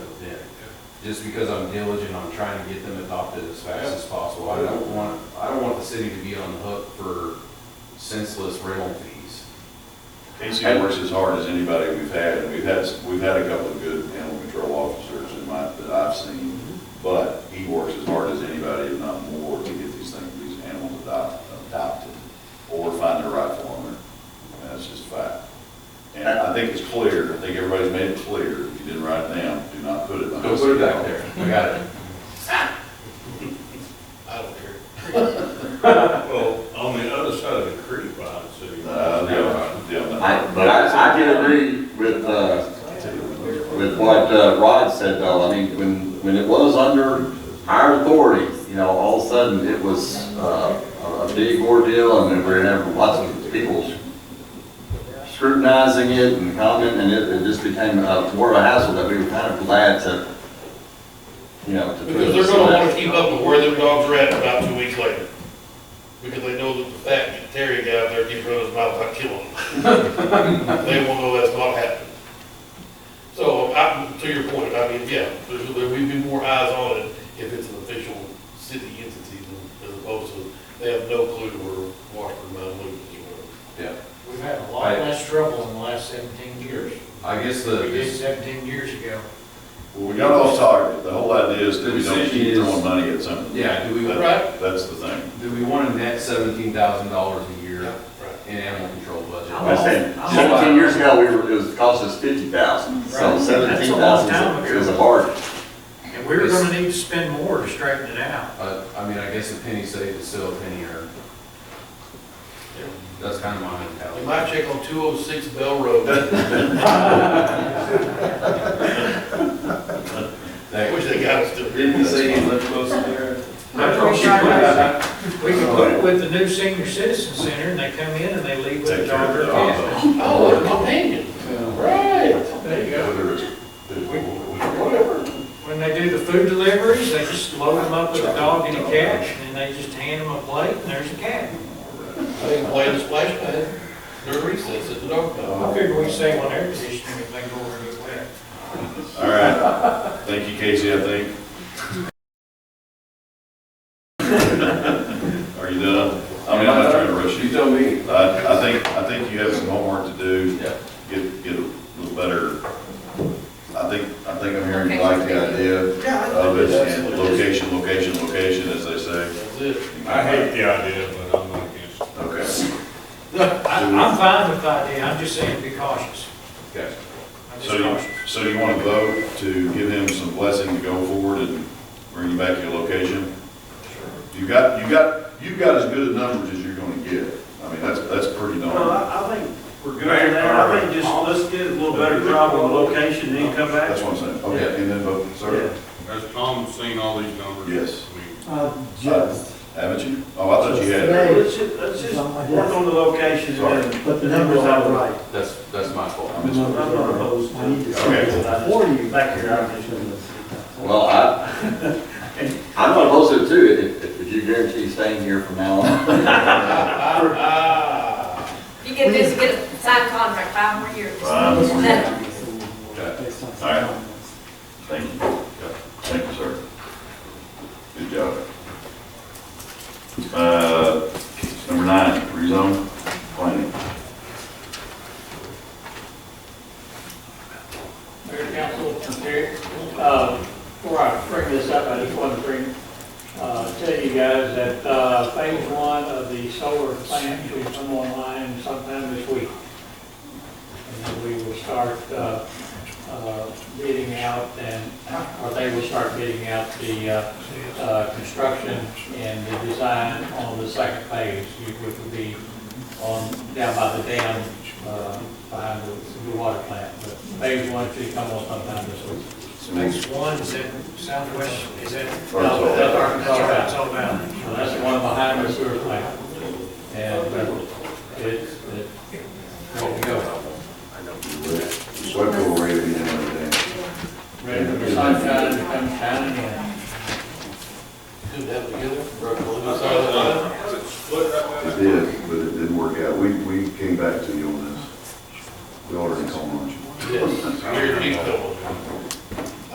just because I'm diligent on trying to get them adopted as fast as possible. I don't want, I don't want the city to be on the hook for senseless rental fees. Casey works as hard as anybody we've had, and we've had, we've had a couple of good animal control officers in my, that I've seen, but he works as hard as anybody, if not more, to get these things, these animals adopt- adopted, or find their rightful owner. And that's just a fact. And I think it's clear, I think everybody's made it clear, if you didn't write it down, do not put it. behind Don't put it back city there. hall. I got it. I don't care. Well, on the other side of the creek, by the city. Uh, yeah, yeah. I, but I, I can agree with, uh, with what uh, Rod said though, I mean, when, when it was under our authority, you know, all of a sudden it was, uh, a- a big ordeal and we were having lots of people scrutinizing it and commenting and it, it just became uh, more of a hassle that we were kind of glad to, you know, to. put Because they're this gonna wanna away. keep up with where their dogs are at about two weeks later. Because they know that the fat Terry guy out there keeps running his mouth about killing them. They won't know that's not happening. So, I, to your point, I mean, yeah, there's, there will be more eyes on it if it's an official city entity than, as opposed to, they have no clue where Washburn, Mount Lucas, or Yeah. We've had a lot less trouble in the last seventeen years. I guess We did the, seventeen years ago. Well, we got off target, the whole idea is that we don't keep Is- throwing money at something. yeah, do we, That- Right. That's the thing. do we want to net seventeen thousand dollars a year Right. in animal control budget? I said, seventeen years ago, we were, it was, cost us fifty thousand, so Right. That's a seventeen long thousand time is ago. a- is a bargain. And we were gonna need to spend more to straighten it out. But, I mean, I guess a penny saved is still a penny earned. Yeah. That's kind of my You mentality. might check on two oh six Bell Road. I That- wish they got us to. Didn't you say you lived close to there? I'm pretty sure that- We could put it with the new senior citizen center and they come in and they leave with a Take care dog of or the a dog, cat. though. Oh, a companion. Right. There you go. Whether it's, Whatever. When they do the food deliveries, they just load them up with a dog and a cat and then they just hand them a plate and there's a cat. They can play the splash pad during recess at the dog pound. I figure we save on air conditioning if they go over and get wet. all right. Thank you, Casey, I think. Are you done? I mean, I'm not trying to rush you. tell me. I, I think, I think you have some homework to do. Yeah. Get, get a little better, I think, I think I'm hearing you like the idea of it, and location, location, location, as they say. That's it. I hate the idea, but I'm not against it. Okay, Look, I, I'm fine with the idea, I'm just saying be cautious. Okay. I'm just so you, cautious. so you want to vote to give him some blessing to go forward and bring you back your location? You got, you got, you got as good a numbers as you're gonna get, I mean, that's, that's pretty No, darn, I, I think we're good on that, I think just, let's get a little better job on the location, then come back. that's what I'm saying, okay, and then vote, sir? Has Tom seen all these numbers? Yes. I mean, Just, Uh, Haven't you? Oh, I thought you had. it. Let's just, let's just work on the location and. but the numbers are right. That's, that's my fault. I missed I'm it. not opposed I need to. to Okay. see it before you. Back here, I Well, I, I'm not opposed to it too, if- if, if you guarantee staying here from now on. Ah, You get this, you get a signed contract, five more years. Wow. Okay. Based on some All right. comments. Thank you. Yeah, Thank you, sir. Good job. Uh, number nine, rezone planning. Mayor Council, Mayor, uh, before I bring this up, I just want to bring, uh, tell you guys that uh, phase one of the solar plant will come online sometime this week. And then we will start uh, uh, bidding out and, uh, or they will start bidding out the uh, uh, construction and the design on the second phase, which would be on, down by the dam, uh, behind the the water plant. But phase one should come on sometime this week. Phase one, is that southwest, is that? Arkansas. That's Arkansas Valley. That's all about. So that's the one behind the sewer plant. And uh, it's, it- There you go. Swept over everything and everything. ready for the sunshine to come shining in. good to have together. Broke a I little thought, side of the line. uh, was it split that way? It did, but it didn't work out. We, we came back to you on this. We ordered a call lunch. Yes, Gary Keith Coleman.